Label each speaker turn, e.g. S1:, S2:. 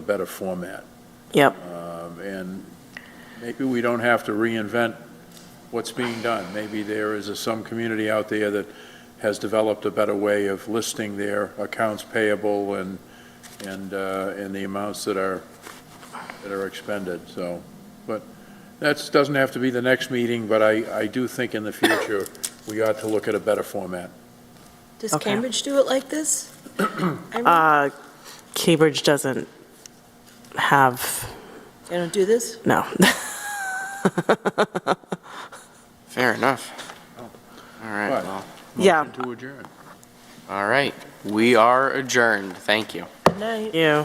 S1: a better format.
S2: Yep.
S1: Um, And maybe we don't have to reinvent what's being done. Maybe there is a- some community out there that has developed a better way of listing their accounts payable and, and, uh, and the amounts that are, that are expended, so. But that's, doesn't have to be the next meeting, but I, I do think in the future, we ought to look at a better format.
S3: Does
S2: Okay.
S3: Cambridge do it like this? Irene?
S2: Uh, Cambridge doesn't have,
S3: They don't do this?
S2: no.
S4: Fair enough. All right,
S1: Right.
S4: well,
S2: Yeah.
S1: Motion to adjourn.
S4: all right. We are adjourned. Thank you.
S3: Good night.
S2: You.